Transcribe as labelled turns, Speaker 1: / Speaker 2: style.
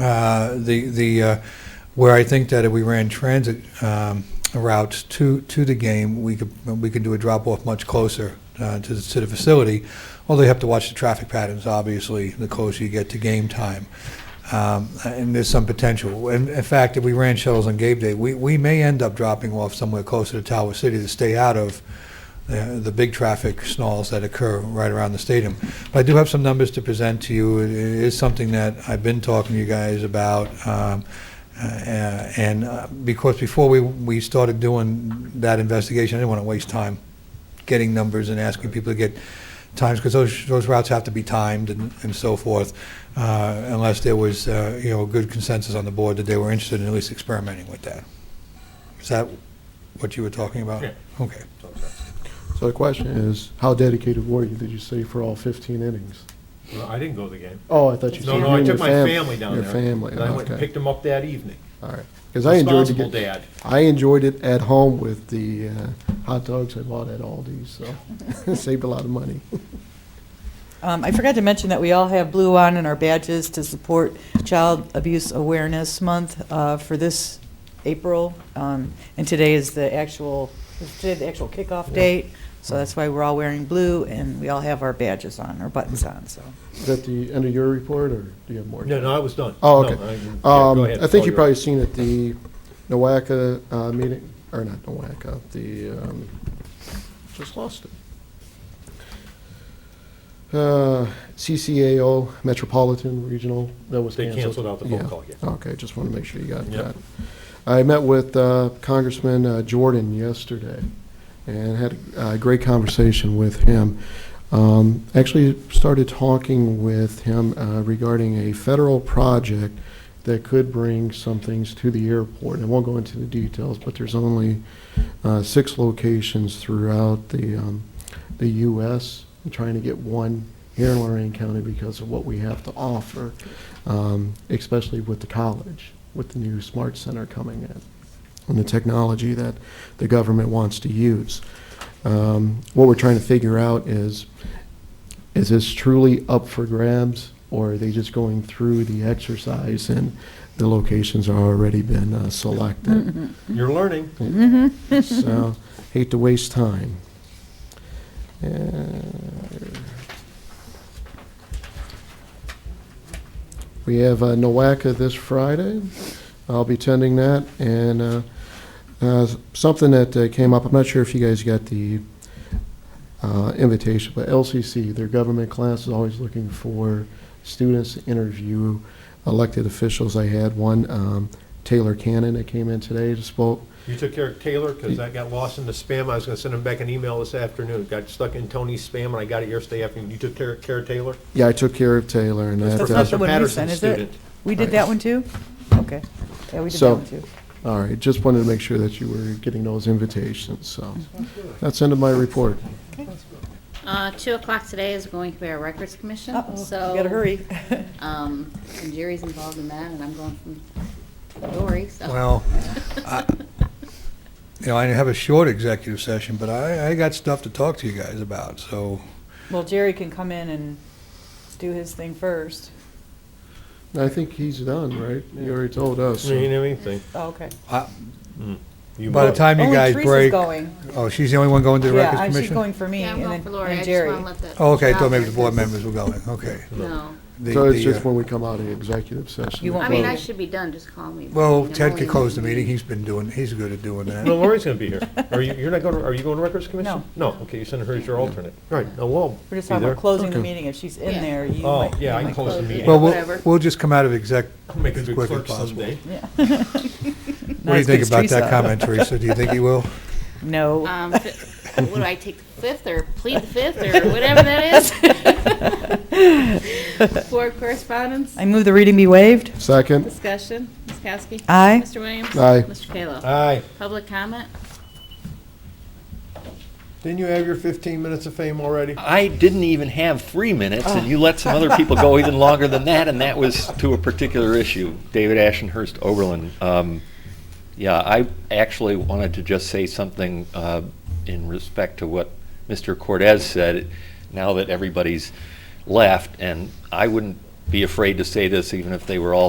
Speaker 1: uh, the, the, uh, where I think that if we ran transit um, routes to, to the game, we could, we could do a drop-off much closer uh, to the, to the facility, although you have to watch the traffic patterns, obviously, the closer you get to game time. Um, And there's some potential. In in fact, if we ran shuttles on game day, we, we may end up dropping off somewhere closer to Tower City to stay out of uh, the big traffic snarls that occur right around the stadium. But I do have some numbers to present to you. It it is something that I've been talking to you guys about. um, uh, And uh, because before we, we started doing that investigation, I didn't want to waste time getting numbers and asking people to get times, because those, those routes have to be timed and, and so forth, uh, unless there was, uh, you know, a good consensus on the board that they were interested in at least experimenting with that. Is that what you were talking about?
Speaker 2: Yeah.
Speaker 1: Okay.
Speaker 3: So the question is, how dedicated were you, did you say, for all 15 innings?
Speaker 2: No, I didn't go to the game.
Speaker 3: Oh, I thought you said
Speaker 2: No,
Speaker 3: you
Speaker 2: no, I
Speaker 3: and your
Speaker 2: took my
Speaker 3: fam-
Speaker 2: family down there.
Speaker 3: Your family,
Speaker 2: And I went and
Speaker 3: okay,
Speaker 2: picked them up that evening.
Speaker 3: all right. Because I enjoyed the
Speaker 2: Responsible
Speaker 3: game.
Speaker 2: dad.
Speaker 3: I enjoyed it at home with the uh, hot dogs I bought at Aldi's, so saved a lot of money.
Speaker 4: Um, I forgot to mention that we all have blue on in our badges to support Child Abuse Awareness Month uh, for this April, um, and today is the actual, is today the actual kickoff date, so that's why we're all wearing blue, and we all have our badges on, our buttons on, so.
Speaker 3: Is that the end of your report, or do you have more?
Speaker 2: No, no, I was done.
Speaker 3: Oh,
Speaker 2: No,
Speaker 3: okay.
Speaker 2: I- yeah, go
Speaker 3: Um,
Speaker 2: ahead.
Speaker 3: I think
Speaker 2: Oh,
Speaker 3: you
Speaker 2: you're
Speaker 3: probably
Speaker 2: right.
Speaker 3: seen at the NOACA uh, meeting, or not NOACA, the, um, just lost it. Uh, CCAO Metropolitan Regional, that was
Speaker 2: They
Speaker 3: canceled.
Speaker 2: canceled out the phone call, yeah.
Speaker 3: Okay, just want to make sure you got
Speaker 2: Yep.
Speaker 3: that. I met with uh, Congressman uh, Jordan yesterday and had a great conversation with him. Um, Actually started talking with him uh, regarding a federal project that could bring some things to the airport. I won't go into the details, but there's only uh, six locations throughout the, um, the U.S. I'm trying to get one here in Lorraine County because of what we have to offer, um, especially with the college, with the new smart center coming in, and the technology that the government wants to use. Um, what we're trying to figure out is, is this truly up for grabs, or are they just going through the exercise and the locations are already been uh, selected?
Speaker 2: You're learning.
Speaker 3: So, hate to waste time. Uh, And We have uh, NOACA this Friday. I'll be attending that. And uh, uh, something that uh, came up, I'm not sure if you guys got the uh, invitation, but LCC, their government class is always looking for students to interview elected officials. I had one, um, Taylor Cannon, that came in today to spoke,
Speaker 2: You took care of Taylor, because that got lost in the spam. I was gonna send him back an email this afternoon. Got stuck in Tony's spam, and I got it yesterday afternoon. You took care care of Taylor?
Speaker 3: Yeah, I took care of Taylor and that.
Speaker 4: That's
Speaker 3: uh,
Speaker 4: not
Speaker 2: Professor
Speaker 4: the one we
Speaker 2: Patterson's
Speaker 4: sent, is it?
Speaker 2: student.
Speaker 4: We did that one too? Okay. Yeah, we did that
Speaker 3: So-
Speaker 4: one too.
Speaker 3: All right, just wanted to make sure that you were getting those invitations, so. That's end of my report.
Speaker 5: Uh, Two o'clock today is going to be our records commission,
Speaker 4: Uh-oh,
Speaker 5: so.
Speaker 4: we gotta hurry.
Speaker 5: um, And Jerry's involved in that, and I'm going from Dory, so.
Speaker 1: Well, I- you know, I have a short executive session, but I, I got stuff to talk to you guys about, so,
Speaker 4: Well, Jerry can come in and do his thing first.
Speaker 3: I think he's done, right? You already told us.
Speaker 2: I mean, anything.
Speaker 4: Oh, Okay.
Speaker 1: I-
Speaker 2: You
Speaker 1: by the
Speaker 2: will.
Speaker 1: time you
Speaker 4: Only
Speaker 1: guys
Speaker 4: Oh, Teresa's
Speaker 1: break.
Speaker 4: going.
Speaker 1: Oh, she's the only one going to the
Speaker 4: Yeah,
Speaker 1: Records
Speaker 4: I- she's
Speaker 1: Commission?
Speaker 4: going for me
Speaker 5: Yeah, I'm
Speaker 4: and
Speaker 5: going
Speaker 4: then
Speaker 5: for Lori.
Speaker 4: and
Speaker 5: I just
Speaker 4: Jerry.
Speaker 5: want to let that.
Speaker 1: Oh, Okay, I
Speaker 5: out
Speaker 1: thought maybe the
Speaker 5: there,
Speaker 1: board
Speaker 5: 'cause-
Speaker 1: members were going, okay.
Speaker 5: No.
Speaker 1: The-
Speaker 3: So it's
Speaker 1: the,
Speaker 3: just
Speaker 1: uh,
Speaker 3: when we come out of the executive session.
Speaker 4: You
Speaker 3: we
Speaker 4: won't
Speaker 5: I mean, I
Speaker 3: close.
Speaker 5: should be done, just call me.
Speaker 1: Well,
Speaker 5: I'm
Speaker 1: Ted
Speaker 5: only-
Speaker 1: could close the meeting, he's been doing, he's good at doing that.
Speaker 2: No, Lori's gonna be here. Are you, you're not going, to are you going to records commission? No. okay, you send her as your alternate. Right, now we'll
Speaker 4: We're
Speaker 2: be
Speaker 4: just talking
Speaker 2: there.
Speaker 4: about closing the
Speaker 3: Okay.
Speaker 4: meeting. If she's in
Speaker 5: Yeah.
Speaker 4: there, you
Speaker 2: Oh,
Speaker 4: might.
Speaker 2: yeah, I
Speaker 4: you
Speaker 2: can
Speaker 4: might
Speaker 2: close the meeting.
Speaker 1: Well, we'll,
Speaker 5: Whatever.
Speaker 1: we'll just come out of exec
Speaker 2: Make a
Speaker 1: as
Speaker 2: good
Speaker 1: quick as
Speaker 2: clerk
Speaker 1: possible.
Speaker 2: someday.
Speaker 4: Yeah.
Speaker 1: What do you think about that comment, Teresa? Do you think he will?
Speaker 4: No.
Speaker 5: Um, fi- What do I take, the fifth or plead the fifth or whatever that is? Board correspondence,
Speaker 4: I move the reading be waived.
Speaker 3: Second,
Speaker 5: discussion, Ms. Kowski.
Speaker 4: Aye.
Speaker 5: Mr. Williams.
Speaker 3: Aye.
Speaker 5: Mr. Kayla.
Speaker 2: Aye.
Speaker 5: Public comment?
Speaker 2: Didn't you have your 15 minutes of fame already?
Speaker 6: I didn't even have three minutes, and you let some other people go even longer than that, and that was to a particular issue. David Ashenhurst Oberlin. Um, yeah, I actually wanted to just say something uh, in respect to what Mr. Cortez said. Now that everybody's left, and I wouldn't be afraid to say this even if they were all